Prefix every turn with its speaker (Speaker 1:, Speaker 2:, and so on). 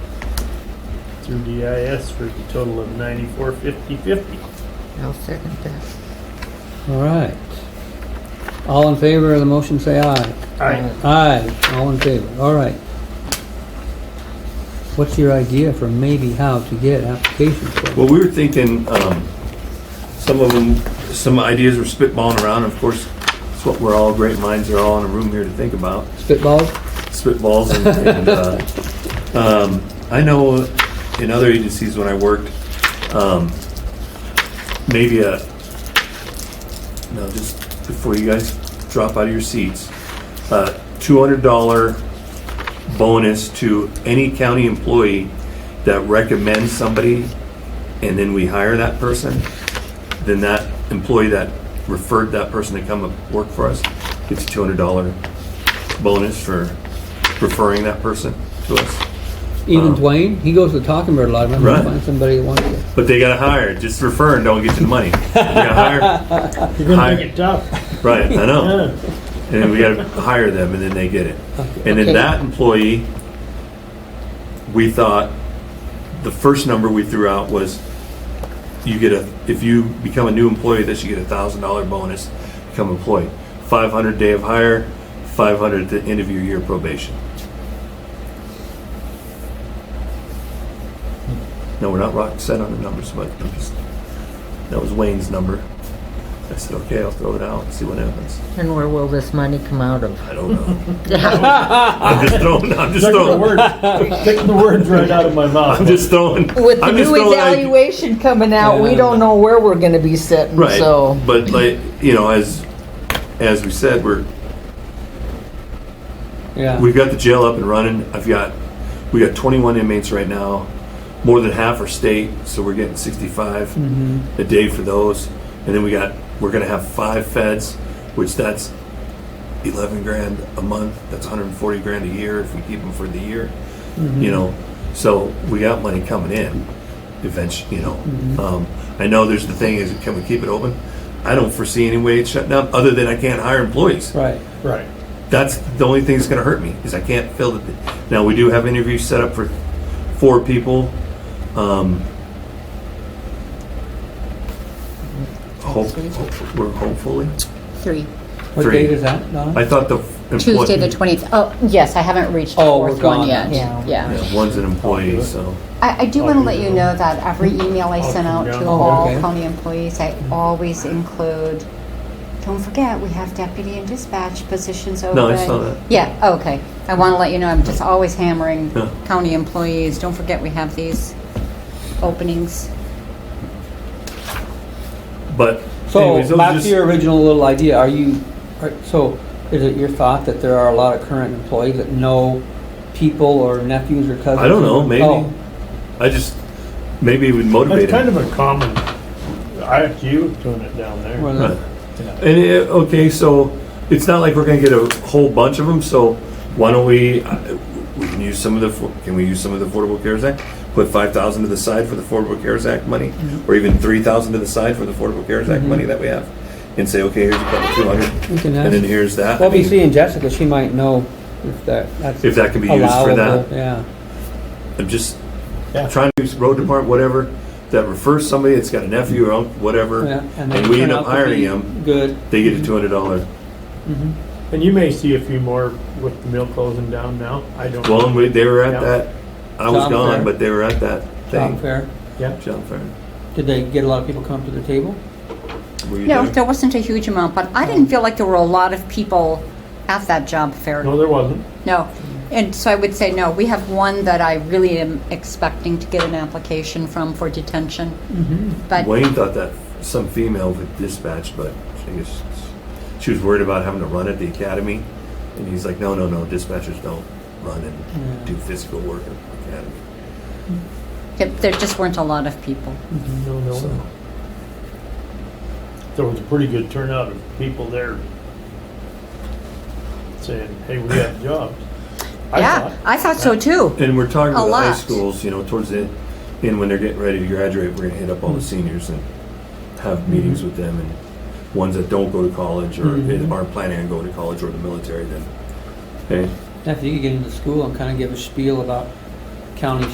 Speaker 1: through DIS for the total of ninety-four fifty fifty.
Speaker 2: I'll second that.
Speaker 3: All right. All in favor of the motion, say aye.
Speaker 1: I,
Speaker 3: Aye, all in favor, all right. What's your idea for maybe how to get applications for?
Speaker 4: Well, we were thinking, um, some of them, some ideas were spitballing around, of course, it's what we're all, great minds are all in a room here to think about,
Speaker 3: Spitballs?
Speaker 4: spitballs and, and, uh, um, I know in other agencies when I worked, um, maybe a, no, just before you guys drop out of your seats, uh, $200 bonus to any county employee that recommends somebody and then we hire that person, then that employee that referred that person to come and work for us gets a $200 bonus for referring that person to us.
Speaker 3: Even Dwayne, he goes to Talking Bird a lot, I'm gonna
Speaker 4: Um, Right.
Speaker 3: find somebody that wants to.
Speaker 4: But they gotta hire, just refer and don't get you the money. You gotta hire,
Speaker 1: you're gonna
Speaker 4: Hi.
Speaker 1: make it tough.
Speaker 4: right, I know.
Speaker 1: Yeah.
Speaker 4: And then we gotta hire them and then they get it. And
Speaker 3: Okay.
Speaker 4: then that employee, we thought, the first number we threw out was you get a, if you become a new employee, that you get a thousand dollar bonus, become employed. Five hundred day of hire, five hundred at the end of your year probation. No, we're not rock set on the numbers, but I'm just, that was Wayne's number. I said, okay, I'll throw it out and see what happens.
Speaker 2: And where will this money come out of?
Speaker 4: I don't know. I'm just throwing. I'm just
Speaker 1: Took the
Speaker 4: throwing.
Speaker 1: words, took the words right out of my mouth.
Speaker 4: I'm just throwing.
Speaker 2: With the
Speaker 4: I'm just
Speaker 2: new
Speaker 4: throwing ide-
Speaker 2: evaluation coming out, we
Speaker 3: Yeah.
Speaker 2: don't know where we're gonna be sitting,
Speaker 4: Right.
Speaker 2: so.
Speaker 4: But like you know, as as we said, we're
Speaker 3: Yeah,
Speaker 4: we've got the jail up and running. I've got we got 21 inmates right now. More than half are state, so we're getting 65 a day for those. And then we got we're going to have five feds, which that's 11 grand a month. That's 140 grand a year if we keep them for the year. You know, so we got money coming in. Eventually, you know. Um, I know there's the thing is can we keep it open? I don't foresee any way it's shutting up other than I can't hire employees
Speaker 3: right.
Speaker 1: Right.
Speaker 4: that's the only thing that's going to hurt me is I can't fill the. Now we do have interviews set up for four people. Um, hope, hope- we're hopefully.
Speaker 5: Three.
Speaker 3: What
Speaker 4: Three.
Speaker 3: date is that, Donna?
Speaker 4: I thought the
Speaker 5: Tuesday, the
Speaker 4: employee-
Speaker 5: 20th. Oh, yes, I haven't reached the
Speaker 3: Oh, we're
Speaker 5: fourth one
Speaker 3: gone.
Speaker 5: yet.
Speaker 2: Yeah.
Speaker 5: Yeah.
Speaker 4: Yeah, one's an employee, so
Speaker 5: I, I do
Speaker 1: I'll
Speaker 5: want to
Speaker 1: do
Speaker 5: let
Speaker 1: that.
Speaker 5: you know that every email I
Speaker 1: I'll
Speaker 5: send
Speaker 1: come
Speaker 5: out
Speaker 1: down.
Speaker 5: to
Speaker 1: Oh,
Speaker 5: all
Speaker 3: okay.
Speaker 5: county employees, I always include, don't forget, we have deputy and dispatch positions open.
Speaker 4: No, I saw that.
Speaker 5: Yeah, oh, okay. I want to let you know, I'm just always hammering
Speaker 4: Yeah.
Speaker 5: county employees, don't forget we have these openings.
Speaker 4: but.
Speaker 3: So,
Speaker 4: anyways, those are
Speaker 3: back
Speaker 4: just-
Speaker 3: to your original little idea, are you, are- so, is it your thought that there are a lot of current employees that know people or nephews or cousins?
Speaker 4: I don't know, maybe.
Speaker 3: Oh,
Speaker 4: I just maybe it would
Speaker 1: That's
Speaker 4: motivate
Speaker 1: kind
Speaker 4: him.
Speaker 1: of a common, IFU doing it down there.
Speaker 3: well,
Speaker 4: Right.
Speaker 3: then-
Speaker 4: And it, okay, so it's not like we're going to get a whole bunch of them. So why don't we? uh, We can use some of the. for- Can we use some of the Affordable Cares Act? Put five thousand to the side for the Affordable Cares Act money,
Speaker 3: Mm-hmm.
Speaker 4: or even three thousand to the side for the Affordable Cares Act money that we have, and say, okay, here's a couple two
Speaker 3: We
Speaker 4: hundred,
Speaker 3: can
Speaker 4: and then
Speaker 3: ask-
Speaker 4: here's that. I
Speaker 3: Well, we
Speaker 4: mean,
Speaker 3: see in Jessica, she might know if that, that's.
Speaker 4: If that can be used for
Speaker 3: allowable,
Speaker 4: that.
Speaker 3: Yeah.
Speaker 4: I'm just
Speaker 1: Yeah.
Speaker 4: trying to use road department, whatever, that refers somebody that's got a nephew or uncle, whatever,
Speaker 3: Yeah,
Speaker 4: and,
Speaker 3: they
Speaker 4: we
Speaker 3: turn
Speaker 4: end
Speaker 3: out
Speaker 4: up
Speaker 3: to
Speaker 4: hiring
Speaker 3: be
Speaker 4: them.
Speaker 3: Good.
Speaker 4: They get a two hundred dollar.
Speaker 1: And you may see a few more with the mill closing down now. I don't.
Speaker 4: Well, and we, they were at
Speaker 1: Yeah.
Speaker 4: that. I was
Speaker 3: Job
Speaker 4: gone,
Speaker 3: fair.
Speaker 4: but they were at that thing.
Speaker 3: Job fair.
Speaker 1: Yeah.
Speaker 4: Job fair.
Speaker 3: Did they get a lot of people come to the table?
Speaker 4: Were you
Speaker 5: No,
Speaker 4: there?
Speaker 5: there wasn't a huge amount, but I didn't feel like there were a lot of people at that job fair.
Speaker 1: No, there wasn't.
Speaker 5: No. And so I would say no. We have one that I really am expecting to get an application from for detention.
Speaker 1: Mm-hmm.
Speaker 5: But
Speaker 4: Wayne thought that some female had dispatched, but I guess she was worried about having to run at the academy. And he's like, no, no, no, dispatchers don't run and do physical work at the academy.
Speaker 5: it- there just weren't a lot of people.
Speaker 1: No, no.
Speaker 4: So-
Speaker 1: no. There was a pretty good turnout of people there saying, hey, we have jobs. I
Speaker 5: yeah,
Speaker 1: thought.
Speaker 5: I thought so too.
Speaker 4: And we're talking
Speaker 5: A
Speaker 4: about high
Speaker 5: lot.
Speaker 4: schools, you know, towards the end when they're getting ready to graduate, we're going to hit up all
Speaker 5: Mm.
Speaker 4: the seniors and have
Speaker 5: Mm-hmm.
Speaker 4: meetings with them and ones that don't go to college or aren't planning on going to college or the military. Then, hey,
Speaker 3: Now, If you could get into school and kind of give a spiel about county